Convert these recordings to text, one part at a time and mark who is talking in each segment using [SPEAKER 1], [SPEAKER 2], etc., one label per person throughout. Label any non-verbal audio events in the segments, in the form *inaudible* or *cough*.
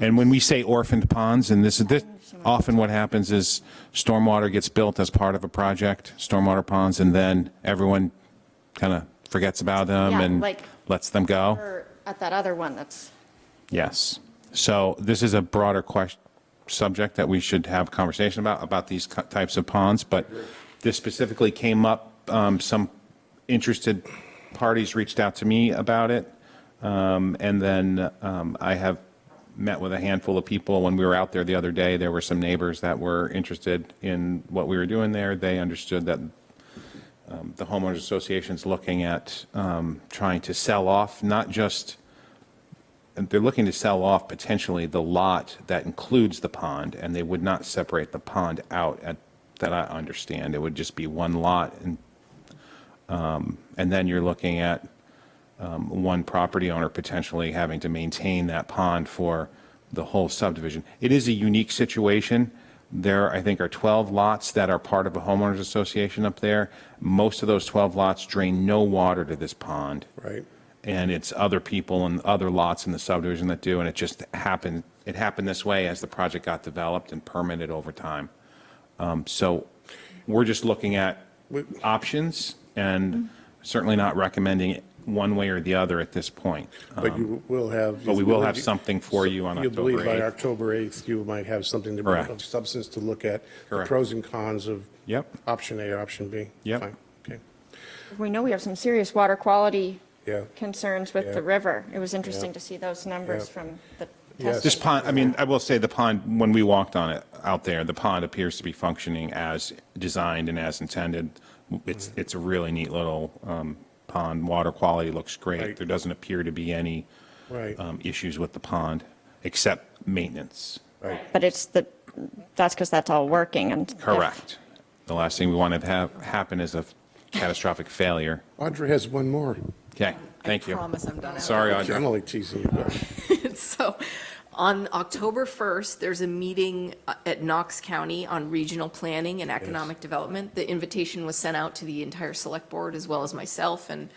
[SPEAKER 1] And when we say orphaned ponds, and this is, this, often what happens is stormwater gets built as part of a project, stormwater ponds, and then everyone kind of forgets about them
[SPEAKER 2] Yeah,
[SPEAKER 1] and
[SPEAKER 2] like-
[SPEAKER 1] lets them go.
[SPEAKER 2] Or at that other one that's,
[SPEAKER 1] Yes. So this is a broader question, subject that we should have conversation about, about these cu- types of ponds, but this specifically came up, um, some interested parties reached out to me about it. Um, And then um, I have met with a handful of people. When we were out there the other day, there were some neighbors that were interested in what we were doing there. They understood that um, the homeowners association's looking at um, trying to sell off, not just, they're looking to sell off potentially the lot that includes the pond, and they would not separate the pond out, at- that I understand. It would just be one lot, and, um, and then you're looking at um, one property owner potentially having to maintain that pond for the whole subdivision. It is a unique situation. There, I think, are 12 lots that are part of a homeowners association up there. Most of those 12 lots drain no water to this pond.
[SPEAKER 3] Right.
[SPEAKER 1] And it's other people and other lots in the subdivision that do, and it just happened, it happened this way as the project got developed and permitted over time. Um, So we're just looking at options and certainly not recommending it one way or the other at this point.
[SPEAKER 3] But you will have.
[SPEAKER 1] Um, But we will have something for you on
[SPEAKER 3] You believe
[SPEAKER 1] October
[SPEAKER 3] by
[SPEAKER 1] 8th.
[SPEAKER 3] October 8th, you might have something to,
[SPEAKER 1] Correct.
[SPEAKER 3] of substance to look at, the
[SPEAKER 1] Correct.
[SPEAKER 3] pros and cons of.
[SPEAKER 1] Yep.
[SPEAKER 3] Option A, option B.
[SPEAKER 1] Yep.
[SPEAKER 3] Fine. Okay,
[SPEAKER 2] we know we have some serious water quality
[SPEAKER 3] yeah.
[SPEAKER 2] concerns with
[SPEAKER 3] Yeah.
[SPEAKER 2] the river. It was interesting
[SPEAKER 3] Yeah.
[SPEAKER 2] to see those numbers
[SPEAKER 3] Yeah.
[SPEAKER 2] from the
[SPEAKER 3] Yes.
[SPEAKER 1] This
[SPEAKER 2] testing.
[SPEAKER 1] pond, I mean, I will say the pond, when we walked on it out there, the pond appears to be functioning as designed and as intended. It's, it's a really neat little um, pond. Water quality looks great.
[SPEAKER 3] Right.
[SPEAKER 1] There doesn't appear to be any
[SPEAKER 3] Right.
[SPEAKER 1] um, issues with the pond, except maintenance.
[SPEAKER 2] But it's the, that's because that's all working and. if-
[SPEAKER 1] Correct. The last thing we want to have happen is a catastrophic failure.
[SPEAKER 3] Audrey has one more.
[SPEAKER 1] Okay, thank you.
[SPEAKER 4] promise I'm done.
[SPEAKER 1] Sorry, Audra.
[SPEAKER 3] I'm only teasing you. but-
[SPEAKER 4] *laughs* So on October 1st, there's a meeting uh, at Knox County on regional planning and economic development. The invitation was sent out to the entire select board as well as myself, and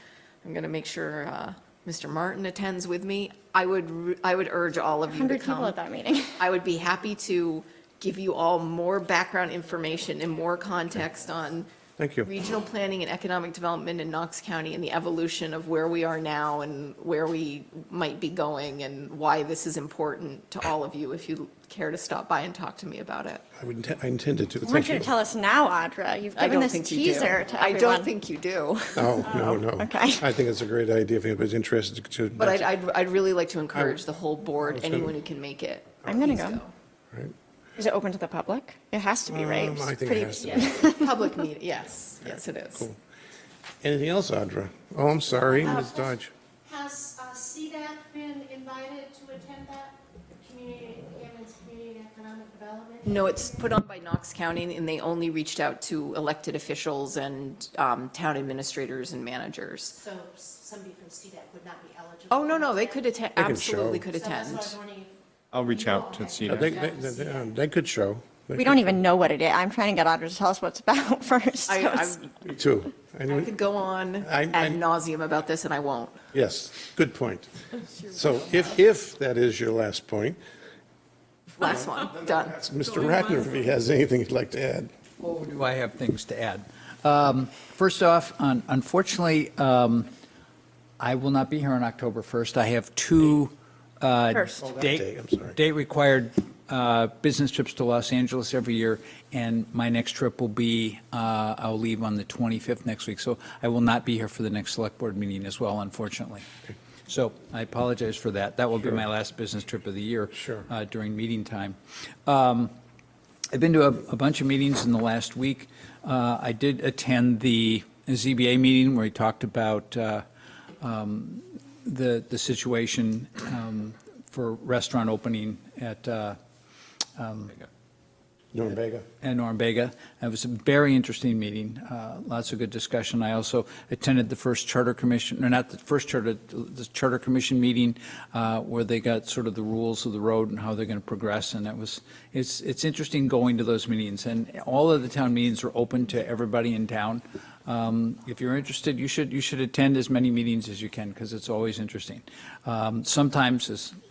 [SPEAKER 4] I'm going to make sure uh, Mr. Martin attends with me. I would, re- I would urge all of you to
[SPEAKER 2] 100
[SPEAKER 4] come.
[SPEAKER 2] people at that
[SPEAKER 3] *laughs*
[SPEAKER 2] meeting.
[SPEAKER 4] I would be happy to give you all more background information and more context on
[SPEAKER 3] Thank you.
[SPEAKER 4] regional planning and economic development in Knox County and the evolution of where we are now and where we might be going and why this is important to all of you if you care to stop by and talk to me about it.
[SPEAKER 3] I would, inte- I intended to.
[SPEAKER 2] I want you to
[SPEAKER 3] Thank
[SPEAKER 2] tell us now, Audra. You've
[SPEAKER 4] I
[SPEAKER 2] given
[SPEAKER 4] don't
[SPEAKER 2] this
[SPEAKER 4] think you do.
[SPEAKER 2] teaser to everyone.
[SPEAKER 4] I don't think you do,
[SPEAKER 3] No, Oh, no, no.
[SPEAKER 2] Oh, okay. *laughs*
[SPEAKER 3] I think it's a great idea if anybody's interested to.
[SPEAKER 4] but I'd, I'd, I'd really like to encourage the whole board, anyone who can make it.
[SPEAKER 2] I'm gonna
[SPEAKER 4] please
[SPEAKER 2] go. Is it open to the public? It has to be, right?
[SPEAKER 3] Um,
[SPEAKER 2] It's
[SPEAKER 3] I think
[SPEAKER 2] pretty-
[SPEAKER 3] it has to
[SPEAKER 2] *laughs*
[SPEAKER 3] be.
[SPEAKER 4] Public meeting, yes, yes, it is.
[SPEAKER 3] Anything else, Audra? Oh, I'm sorry, Ms. Dodge.
[SPEAKER 5] Has uh, CDAC been invited to attend that, Community, Hammond's Community and Economic Development?
[SPEAKER 4] No, it's put on by Knox County, and they only reached out to elected officials and um, town administrators and managers.
[SPEAKER 5] So s- somebody from CDAC would not be eligible?
[SPEAKER 4] Oh, no, no, they could attend,
[SPEAKER 3] can
[SPEAKER 4] absolutely
[SPEAKER 3] show.
[SPEAKER 4] could
[SPEAKER 5] So that's
[SPEAKER 4] attend.
[SPEAKER 5] what I was wondering if-
[SPEAKER 1] I'll reach out to
[SPEAKER 3] Uh, They,
[SPEAKER 1] CDAC.
[SPEAKER 3] they, they- um, they could show. They
[SPEAKER 2] We don't even know what it is. I'm trying to get Audra to tell us what's about *laughs* first.
[SPEAKER 4] I,
[SPEAKER 2] so
[SPEAKER 4] I
[SPEAKER 2] it's-
[SPEAKER 3] could- Me Too.
[SPEAKER 4] I
[SPEAKER 3] Anyone-
[SPEAKER 4] could go on
[SPEAKER 3] I- I-
[SPEAKER 4] ad nauseum about this, and I won't.
[SPEAKER 3] Yes, good point. So if, if that is your last point,
[SPEAKER 4] Last one, done.
[SPEAKER 3] Mr. Ratner, if he has anything he'd like to add.
[SPEAKER 6] Oh, do I have things to add? Um, First off, un- unfortunately, um, I will not be here on October 1st. I have two uh,
[SPEAKER 2] First. Oh,
[SPEAKER 3] that day,
[SPEAKER 6] date
[SPEAKER 3] I'm sorry.
[SPEAKER 6] date-required uh, business trips to Los Angeles every year, and my next trip will be, uh, I'll leave on the 25th next week, so I will not be here for the next Select Board meeting as well, unfortunately. So I apologize for that. That will be my last business trip of the year.
[SPEAKER 3] Sure.
[SPEAKER 6] uh, During meeting time. Um, I've been to a, a bunch of meetings in the last week. Uh, I did attend the ZBA meeting where he talked about, uh, um, the, the situation, um, for restaurant opening at, uh,
[SPEAKER 3] Norbega.
[SPEAKER 6] and Norumbega. It was a very interesting meeting, uh, lots of good discussion. I also attended the first Charter Commission, or not the first Charter, the Charter Commission meeting, uh, where they got sort of the rules of the road and how they're going to progress, and that was, it's, it's interesting going to those meetings, and all of the town meetings are open to everybody in town. Um, If you're interested, you should, you should attend as many meetings as you can, because it's always interesting. Um, Sometimes, as